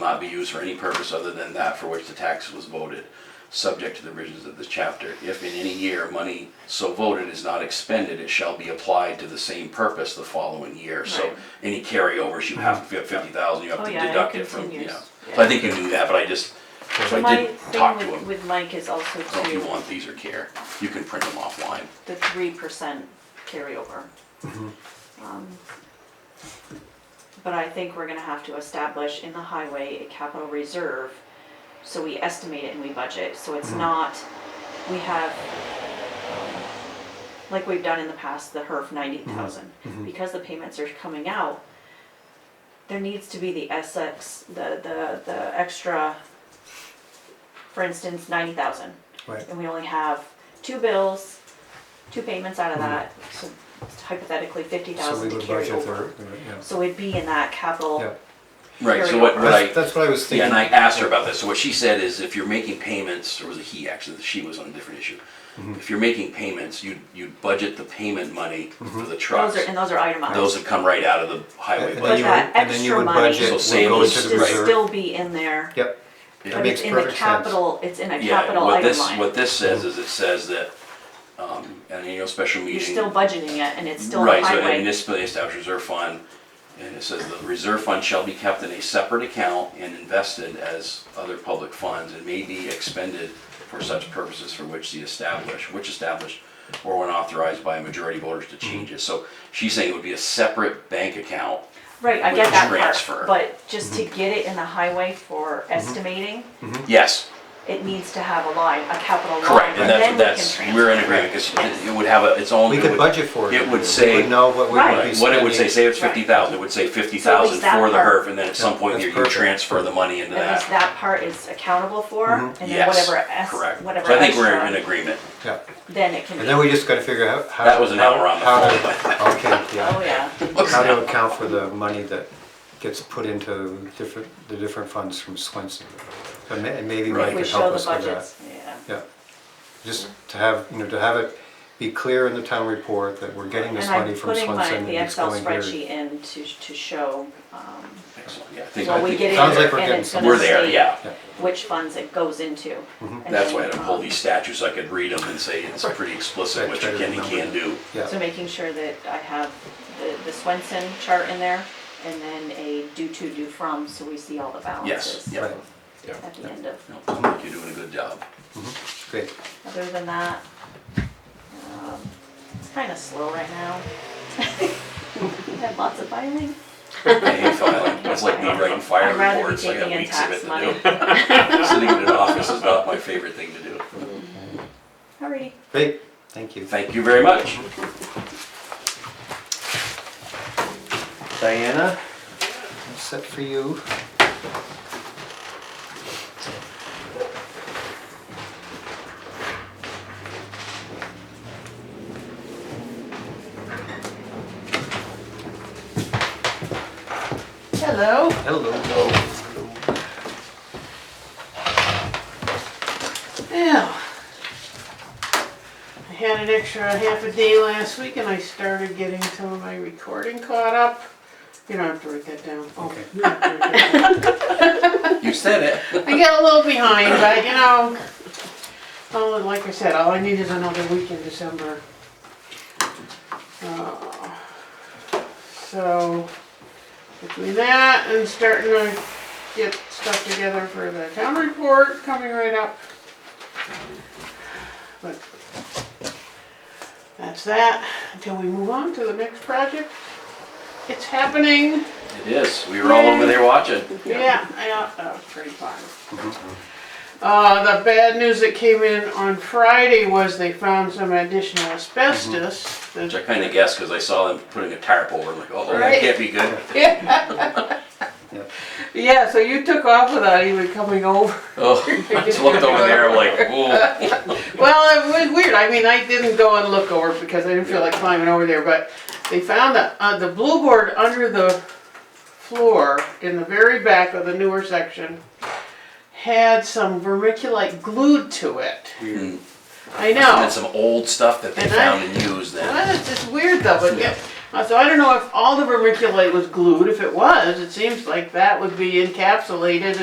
not be used for any purpose other than that for which the tax was voted, subject to the provisions of this chapter. If in any year money so voted is not expended, it shall be applied to the same purpose the following year. So Right. any carryovers, you have, if you have fifty thousand, you have Oh, to yeah, it deduct it from, you continues. know. So I Yeah. think you knew that, but I just, so So I my did talk to thing with, him. with Mike is also So if you to want these or care, you can print them offline. the three percent carryover. Um, But I think we're gonna have to establish in the highway a capital reserve, so we estimate it and we budget, so it's not, we have, um, like we've done in the past, the HERF ninety thousand, because the payments are coming out, there needs to be the SX, the, the, the extra, for instance, ninety thousand Right, and we only have two bills, two payments out of that, so hypothetically fifty Mm-hmm. so we thousand to would carry budget over. there, yeah. So it'd be in that Yeah. capital, Right, so Carryover. what, what I. That's, that's what I was Yeah, thinking. and I asked her about this, so what she said is if you're making payments, or was it he actually, she was on a different issue. If you're making payments, you, you budget the payment money for the those trucks. are, and those are Those itemized. have come right out of the highway And But then budget. you would- that and then you extra would money budget So would same go as- to Needs the to Right. reserve. still be in there, Yep, Yeah. but it's makes in the perfect sense. capital, it's in a Yeah, capital what item this, line. what this says is it says that, um, an annual special meeting. You're still budgeting it and it's still in Right, the so a highway. municipally established reserve fund, and it says the reserve fund shall be kept in a separate account and invested as other public funds and may be expended for such purposes for which the established, which established or when authorized by a majority of voters to change it. So she's saying it would be a separate bank account. Right, I with get that transfer. part, but just Mm-hmm. to get it in the highway for estimating, Hmm? Yes, it needs to have a line, a capital line. correct, and that's, then we that's, can we're in transfer. agreement, because it would have a, its own. we it could would- budget for it. It We would say. Would know what we would be Right. Right, what it would say, say it's Right. fifty thousand, it would say fifty So thousand at least for the that part- HERF, and then at some point That's you can perfect. transfer the money into At least that. Mm-hmm. that part is accountable for, and then Yes, whatever, es- correct. whatever. So I think we're in extra, agreement. Yeah, Then it can and then we be, just gotta figure out how. That was an hour on the how to- phone, Okay, oh, yeah, yeah, how to account for the money that gets put into different, the different funds from Swenson. And ma- and maybe Mike Right. we could show help the us with that. budgets, yeah. Yeah, just to have, you know, to have it be clear in the town report that we're getting this And money I'm from putting my, Swenson and the it's Excel going here. spreadsheet in to, to show, um, Excellent, yeah, I think, when I we get think, in Sounds like we're and getting it's some- gonna we're there, say yeah. Yeah. Which funds it goes into. Mm-hmm. and That's then, why I don't pull um, these statutes, so I could read them and say it's pretty explicit what you can and can't do. So Yeah, making sure that I have the, the Swenson chart in there, and then a due to, due from, so we see all the Yes, balances yeah. right, at the end of. No, I think You're doing a good job. Mm-hmm. great. Other than that, um, it's kind of slow right now. We have lots of filing. I hate filing, it's like me writing fire I'd rather be reports, I got taking in weeks of it tax money. to do. Sitting in an office is not my favorite thing to do. Alrighty. Great, thank you. Thank you very much. Diana, I'm set for you. Hello. Hello. Now, I had an extra half a day last week and I started getting some of my recording caught up. You don't have to write that down. Oh, Okay. I You said it. got a little behind, but you know, oh, like I said, all I need is another week in December. Uh, So, between that and starting to get stuff together for the town report coming right up. But that's that, until we move on to the next project. It's happening. It is, we were all over there watching. Yeah, yeah, that was pretty fun. Uh, the bad news that came in on Friday was they found some additional asbestos. Which I kind of guessed because I saw them putting a tarp over. I'm like, oh, that Right. can't be good. Yeah, so you took off without even coming over. Oh, I just looked over there. I'm like, whoa. Well, it was weird. I mean, I didn't go and look over because I didn't feel like climbing over there, but they found the, uh, the blue board under the floor in the very back of the newer section had some vermiculite glued to it. Hmm. I know. And then some old stuff that they And I- found and used then. Well, it's just weird though, but Yeah. yeah, Uh, So I don't know if all the vermiculite was glued. If it was, it seems like that would be encapsulated